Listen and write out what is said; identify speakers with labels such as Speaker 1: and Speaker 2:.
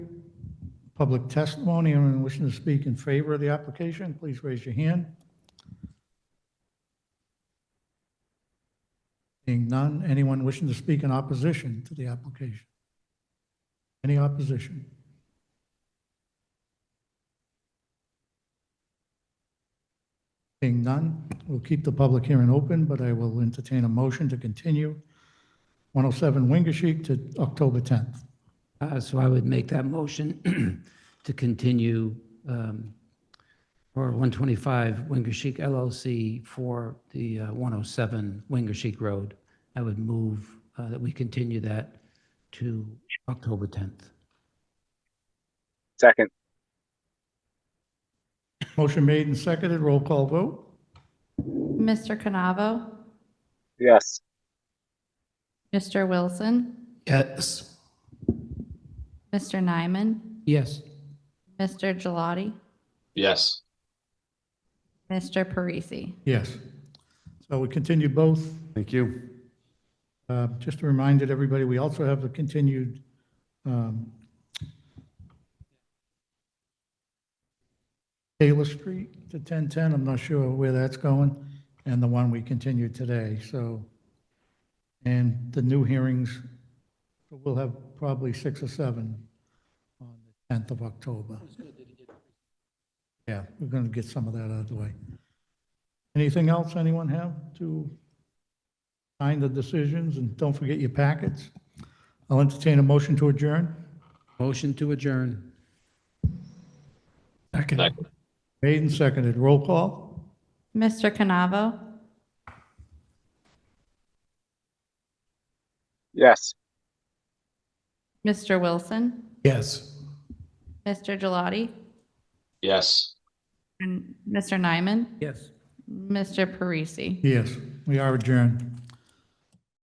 Speaker 1: public testimony. Anyone wishing to speak in favor of the application, please raise your hand. Seeing none, anyone wishing to speak in opposition to the application? Any opposition? Seeing none, we'll keep the public hearing open, but I will entertain a motion to continue 107 Wingershik to October 10th.
Speaker 2: Uh, So I would make that motion to continue um, for 125 Winger Chic LLC for the uh, 107 Winger Chic Road. I would move uh, that we continue that to October 10th.
Speaker 3: Second,
Speaker 1: Motion made and seconded, roll call vote.
Speaker 4: Mr. Canavo?
Speaker 3: yes.
Speaker 4: Mr. Wilson?
Speaker 2: Yes.
Speaker 4: Mr. Nyman?
Speaker 2: Yes.
Speaker 4: Mr. Gelati,
Speaker 5: yes,
Speaker 4: Mr. Parisi?
Speaker 1: Yes. So we continue both.
Speaker 6: Thank you.
Speaker 1: Uh, Just a reminder to everybody, we also have the continued um, Taylor Street to 1010. I'm not sure where that's going, and the one we continued today, so. And the new hearings, we'll have probably six or seven on the 10th of October. Yeah, we're going to get some of that out of the way. Anything else anyone have to sign the decisions, and don't forget your packets? I'll entertain a motion to adjourn.
Speaker 2: Motion to adjourn.
Speaker 5: second,
Speaker 1: Made and seconded, roll call?
Speaker 4: Mr. Canavo?
Speaker 3: Yes.
Speaker 4: Mr. Wilson?
Speaker 1: Yes.
Speaker 4: Mr. Gelati,
Speaker 5: yes.
Speaker 4: and Mr. Nyman?
Speaker 2: Yes.
Speaker 4: Mr. Parisi?
Speaker 1: Yes, we are adjourned.